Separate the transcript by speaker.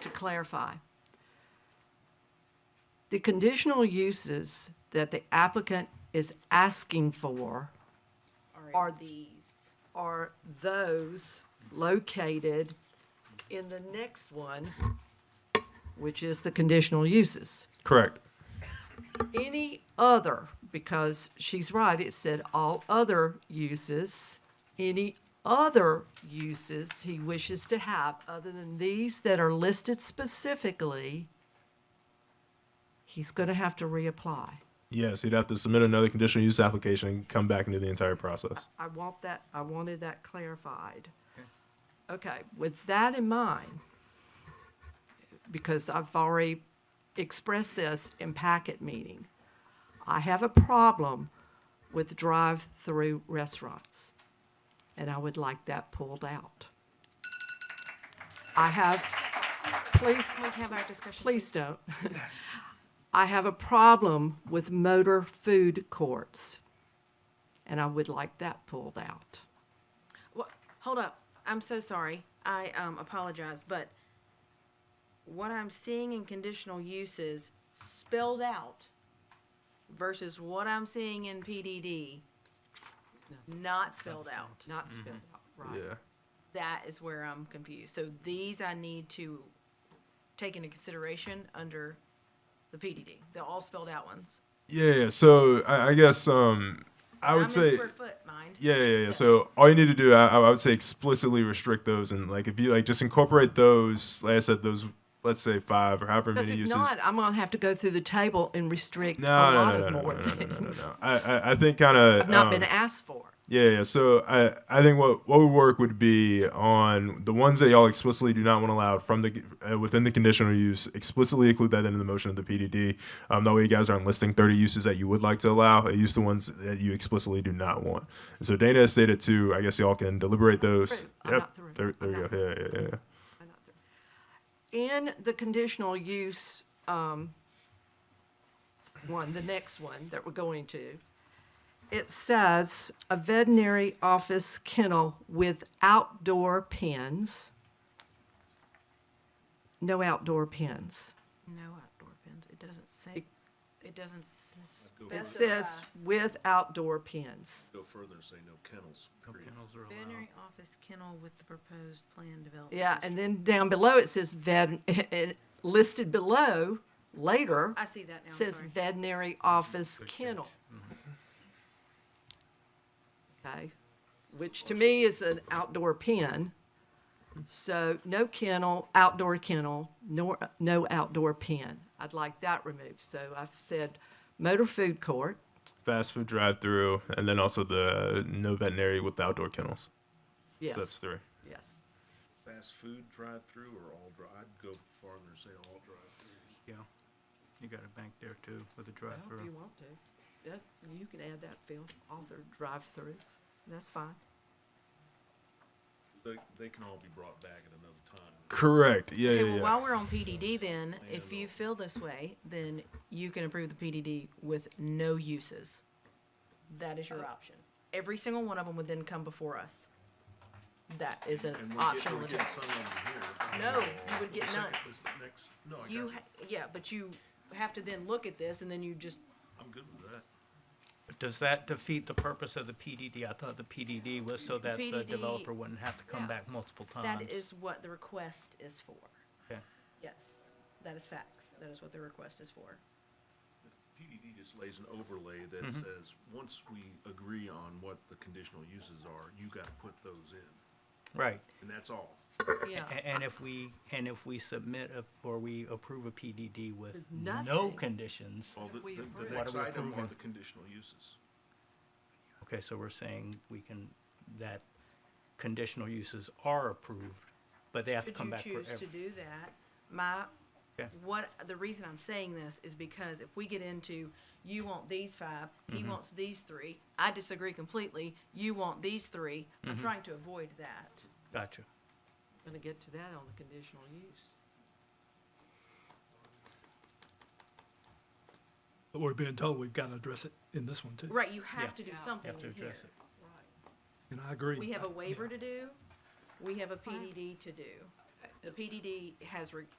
Speaker 1: to clarify. The conditional uses that the applicant is asking for are these, are those located in the next one, which is the conditional uses.
Speaker 2: Correct.
Speaker 1: Any other, because she's right, it said all other uses, any other uses he wishes to have other than these that are listed specifically, he's going to have to reapply.
Speaker 2: Yes, he'd have to submit another conditional use application and come back into the entire process.
Speaker 1: I want that, I wanted that clarified. Okay, with that in mind, because I've already expressed this in packet meeting, I have a problem with drive-through restaurants, and I would like that pulled out. I have, please,
Speaker 3: Can we have our discussion?
Speaker 1: please don't. I have a problem with motor food courts, and I would like that pulled out.
Speaker 3: Wha- Hold up. I'm so sorry. I um, apologize, but what I'm seeing in conditional uses spelled out versus what I'm seeing in PDD not spelled out.
Speaker 1: Not spelled out, right.
Speaker 2: Yeah.
Speaker 3: That is where I'm confused. So these I need to take into consideration under the PDD, the all spelled out ones.
Speaker 2: Yeah. yeah. So I, I guess um, I
Speaker 3: I'm
Speaker 2: would
Speaker 3: in
Speaker 2: say.
Speaker 3: square foot, mind.
Speaker 2: Yeah, yeah, yeah. So all you need to do, I, I would say, explicitly restrict those, and like if you like, just incorporate those. Like I said, those, let's say five or however
Speaker 1: Because
Speaker 2: many
Speaker 1: if
Speaker 2: uses.
Speaker 1: not, I'm gonna have to go through the table and restrict a
Speaker 2: no, no,
Speaker 1: lot
Speaker 2: no, no,
Speaker 1: of
Speaker 2: no, no,
Speaker 1: more
Speaker 2: no, no, no, no,
Speaker 1: things.
Speaker 2: no. I, I, I think um, kind of.
Speaker 1: I've not been asked for.
Speaker 2: Yeah, yeah. So I, I think what what would work would be on the ones that y'all explicitly do not want allowed from the uh, within the conditional use. Explicitly include that into the motion of the PDD. Um, that way, you guys aren't listing 30 uses that you would like to allow. Use the ones that you explicitly do not want. And so Dana has stated too. I guess y'all can deliberate those.
Speaker 1: Through. I'm
Speaker 2: Yep.
Speaker 1: not through.
Speaker 2: There, there
Speaker 1: I'm
Speaker 2: you
Speaker 1: not
Speaker 2: go. Yeah, yeah, yeah.
Speaker 1: In the conditional use, um, one, the next one that we're going to, it says a veterinary office kennel with outdoor pens. No outdoor pens.
Speaker 3: No outdoor pens. It doesn't say. It doesn't. s-
Speaker 1: It
Speaker 3: specify.
Speaker 1: says with outdoor pens.
Speaker 4: Go further and say no kennels. period.
Speaker 3: Veterinary office kennel with the proposed plan development.
Speaker 1: Yeah, and then
Speaker 3: district.
Speaker 1: down below it says vet, listed below, later,
Speaker 3: I see that now, I'm
Speaker 1: says
Speaker 3: sorry.
Speaker 1: veterinary office kennel. Okay, which to me is an outdoor pen. So no kennel, outdoor kennel, nor, no outdoor pen. I'd like that removed. So I've said motor food court,
Speaker 2: Fast food drive-through, and then also the no veterinary with outdoor kennels. So that's
Speaker 1: yes,
Speaker 2: three.
Speaker 1: yes.
Speaker 4: Fast food drive-through or all dri, I'd go farther and say all drive-throughs.
Speaker 5: Yeah, you got a bank there too with a
Speaker 1: However you
Speaker 5: drive-through.
Speaker 1: want to. That, you can add that, Phil, author drive-throughs. That's fine.
Speaker 4: They, they can all be brought back at another time.
Speaker 2: Correct. Yeah,
Speaker 3: Okay,
Speaker 2: yeah,
Speaker 3: well,
Speaker 2: yeah.
Speaker 3: while we're on PDD then, if you feel this way, then you can approve the PDD with no uses. That is your
Speaker 1: Oh.
Speaker 3: option. Every single one of them would then come before us. That is an
Speaker 4: And we
Speaker 3: option.
Speaker 4: get, we get some over here.
Speaker 3: No, you would get
Speaker 4: The second-
Speaker 3: none.
Speaker 4: this Next, no, I got
Speaker 3: You,
Speaker 4: you.
Speaker 3: ha- yeah, but you have to then look at this and then you just,
Speaker 4: I'm good with that.
Speaker 5: But does that defeat the purpose of the PDD? I thought the PDD was so that the
Speaker 3: PDD
Speaker 5: developer wouldn't have to
Speaker 3: yeah.
Speaker 5: come back multiple times.
Speaker 3: that is what the request is for.
Speaker 5: Okay.
Speaker 3: Yes, that is facts. That is what the request is for.
Speaker 4: PDD just lays an overlay that
Speaker 3: Mm-hmm.
Speaker 4: says, once we agree on what the conditional uses are, you gotta put those in,
Speaker 5: Right.
Speaker 4: and that's all.
Speaker 3: Yeah.
Speaker 5: A- And if we, and if we submit a- or we approve a PDD with
Speaker 1: With
Speaker 5: no
Speaker 1: nothing.
Speaker 5: conditions,
Speaker 4: Well, the,
Speaker 1: we
Speaker 4: the-
Speaker 1: approve.
Speaker 4: the
Speaker 5: What
Speaker 4: next
Speaker 5: are we
Speaker 4: item are
Speaker 5: approving?
Speaker 4: the conditional uses.
Speaker 5: okay, so we're saying we can, that conditional uses are approved, but they have to
Speaker 3: Could
Speaker 5: come
Speaker 3: you
Speaker 5: back for
Speaker 3: choose to
Speaker 5: every.
Speaker 3: do that? My,
Speaker 5: Yeah.
Speaker 3: what, the reason I'm saying this is because if we get into, you want these five, he
Speaker 5: Mm-hmm.
Speaker 3: wants these three, I disagree completely, you want these three,
Speaker 5: Mm-hmm.
Speaker 3: I'm trying to avoid that.
Speaker 5: Gotcha.
Speaker 1: Gonna get to that on the conditional use.
Speaker 6: But we're being told we've got to address it in this one too.
Speaker 3: Right, you have to do
Speaker 1: Yeah.
Speaker 3: something
Speaker 5: Have to
Speaker 3: in here.
Speaker 5: address it.
Speaker 6: And I agree.
Speaker 3: We have a
Speaker 6: Yeah.
Speaker 3: waiver to do, we have a PDD to do. The PDD has re-